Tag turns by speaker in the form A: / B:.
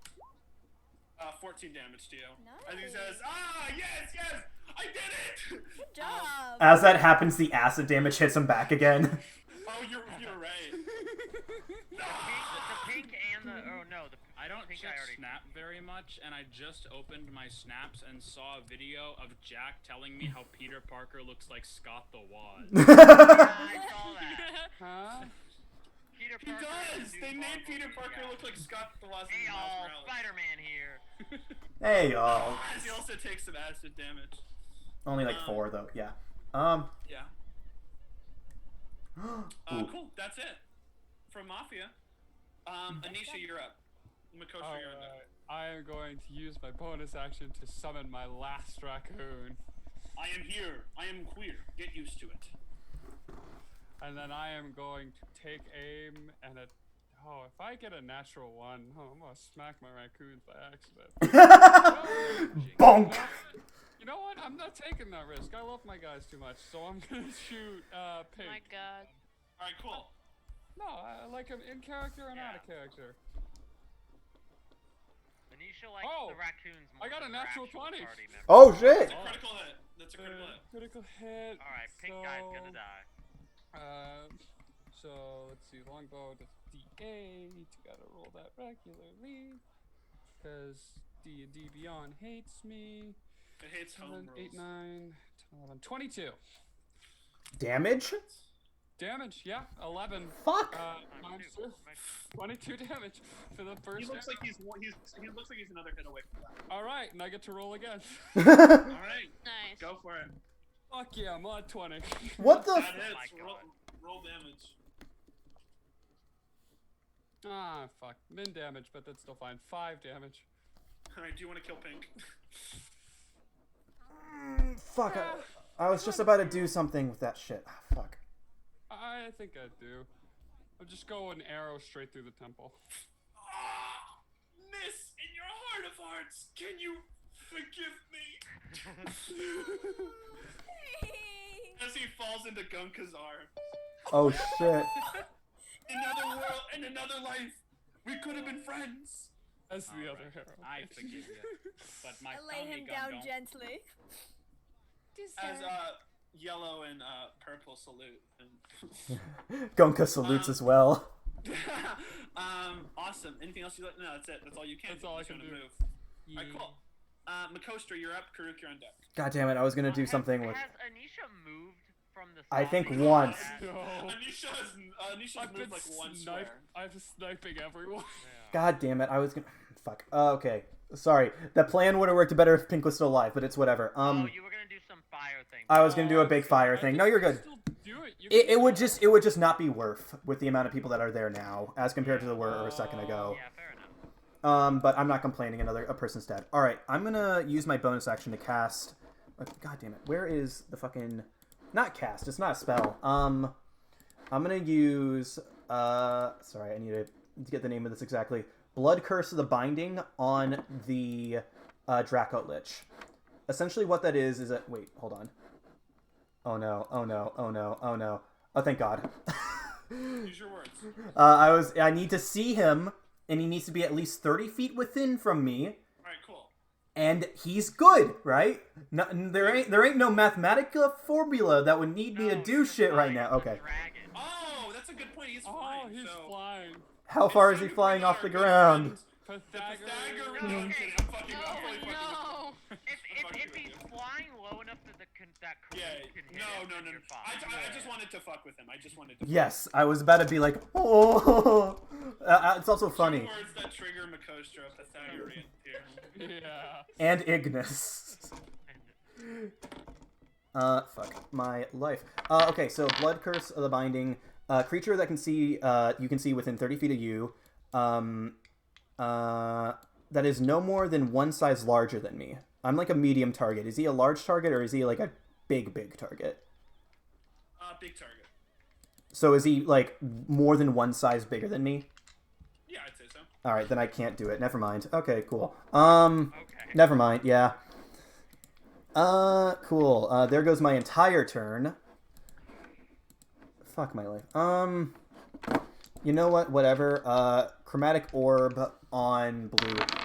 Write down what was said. A: 14 Uh, damage to you.
B: Nice.
A: As he says, ah, yes, yes, I did it!
B: Good job.
C: As that happens, the acid damage hits him back again.
A: Oh, you're, you're right.
D: The pink, the pink and the oh no, the
E: I don't think
D: Should
E: I already
D: snap
E: snap very much, and I just opened my snaps and saw a video of Jack telling me how Peter Parker looks like Scott the Wad.
D: I saw that.
F: Huh?
D: Peter
A: He
D: Parker.
A: does!
D: is the new
A: They made
D: Marvel
A: Peter
D: movie
A: Parker
D: guy.
A: look like Scott the Lost
D: Hey oh, y'all, Spider-Man here.
C: hey, y'all.
A: He also takes some acid damage.
C: Only like four, though. Yeah. Um.
A: Yeah. Uh,
C: Ooh.
A: cool. That's it. From Mafia. Um,
F: Mm-hmm.
A: Anisha, you're up. Makosha,
F: All
A: you're up.
F: right. I am going to use my bonus action to summon my last raccoon,
A: I am here. I am queer. Get used to it.
F: and then I am going to take aim and a. Oh, if I get a natural one, oh, I'm gonna smack my raccoons by accident.
C: Bonk.
F: you know what? I'm not taking that risk. I love my guys too much, so I'm gonna shoot uh, pink.
B: my God.
A: All right, cool.
F: No, I I like him in character and out of
D: Yeah.
F: character.
D: Anisha likes
F: Oh,
D: the raccoons more
F: I got
D: than
F: a
D: her
F: natural
D: actual
F: 20.
D: Party member.
G: Oh shit!
F: Oh.
A: Critical hit. That's a
F: Uh,
A: critical hit.
F: critical
C: Oh.
F: hit.
D: All right, pink guy's gonna
F: so-
D: die.
F: Um, so let's see, longbow to D8. You gotta roll that regularly, because D and D Beyond hates me.
A: It hits home
F: Seven, eight,
A: rules.
F: nine, 10, 11, 22
C: Damage?
F: damage. Yeah, eleven.
C: Fuck.
F: Uh,
D: Times
F: times
D: two.
F: two. twenty-two damage for the first.
A: He looks
F: hit.
A: like he's, one- he's he looks like he's another hit away from that.
F: All right, and I get to roll again.
A: All right,
B: Nice.
A: go for it.
F: Fuck yeah, I'm on twenty.
C: what the?
A: That
C: F-
D: my
A: hits. Roll,
D: God.
A: roll damage.
F: ah, fuck. Min damage, but that's still fine. Five damage.
A: All right, do you want to kill Pink?
C: Mm, fuck. I, I was just about to do something with that shit. Ah, Fuck.
F: I think I do. I'll just go an arrow straight through the temple.
A: Ah, miss, in your heart of hearts, can you forgive me? As he falls into Gunka's arms.
C: Oh shit.
A: In another world, in another life, we could have been friends.
F: That's the
E: All
F: other
E: right.
F: arrow.
E: I forgive you, but my
B: I lay
E: family
B: him
E: gun
B: down
E: don't.
B: gently.
A: As uh, yellow and uh, purple salute. And
C: Gonka salutes as well.
A: um, awesome. Anything else you like? No, that's it. That's all you can.
F: That's all I
A: Just
F: can
A: wanna
F: do.
A: Move. All right, cool. Uh, Makostra, you're up. Karuk, you're on deck.
C: God damn it! I was gonna do
D: Has-
C: something with.
D: Has Anisha moved from the? Oh,
C: I think
D: zombie to
C: once.
D: that?
F: No.
A: Anisha has, uh, Anisha's
F: I've been
A: moved like one
F: snipe-
A: square.
F: I'm sniping everyone.
C: God damn it! I was gonna. Fuck. Uh, okay. Sorry. The plan would have worked better if Pink was still alive, but it's whatever. Um,
D: oh, you were gonna do some fire thing.
C: I was gonna do a big fire
F: I
C: thing.
F: think
C: No, you're
F: you can
C: good.
F: still do it. You
C: It,
F: can
C: it would
F: still-
C: just it would just not be worth with the amount of people that are there now as compared to the were a second ago.
D: Yeah, fair enough.
C: Um, but I'm not complaining. Another a person's dead. All right, I'm gonna use my bonus action to cast. uh, God damn it! Where is the fucking? Not cast. It's not a spell. Um, I'm gonna use. Uh, sorry, I need to get the name of this exactly. Blood Curse of the Binding on the uh, Draco Lich. Essentially, what that is is that. Wait, hold on. Oh no! Oh no! Oh no! Oh no! Oh thank God.
A: Use your words.
C: uh, I was. I need to see him, and he needs to be at least thirty feet within from me
A: All right, cool.
C: and he's good, right? No, there ain't there ain't no mathematical formula that would need me to
D: No,
C: do
D: he's
C: shit right
D: flying
C: now.
D: as a
C: Okay,
D: dragon.
A: Oh, that's a good point. He's
F: Oh,
A: flying.
F: he's
A: so-
F: flying.
C: how far is he flying off the ground?
F: Pythagoras.
A: Pythagorean-
D: No,
A: I'm
D: okay.
A: kidding. I'm fucking-
D: Oh,
A: I'm totally fucking-
B: Oh no!
D: If, if,
A: fucking
D: if
A: with
D: he's
A: you.
D: flying low enough that the con- that Karuk
A: Yeah.
D: can hit
A: No,
D: him,
A: no,
D: then
A: no. no.
D: you're fine.
A: I, I, I just wanted to fuck with him. I just wanted to.
C: Yes, I was about to be like, oh, Uh, uh, it's also funny.
A: Words that trigger Makostra, Pythagorean theorem.
F: Yeah.
C: And Ignis. Uh, fuck my life. Uh, okay, so blood curse of the binding. Uh, creature that can see, uh, you can see within thirty feet of you. Um, uh, that is no more than one size larger than me. I'm like a medium target. Is he a large target or is he like a big, big target?
A: Uh, big target.
C: So is he like more than one size bigger than me?
A: Yeah, I'd say so.
C: All right, then I can't do it. Never mind. Okay, cool. Um,
D: Okay.
C: never mind. Yeah. Uh, cool. Uh, there goes my entire turn. Fuck my life. Um, you know what? Whatever. Uh, chromatic orb on blue.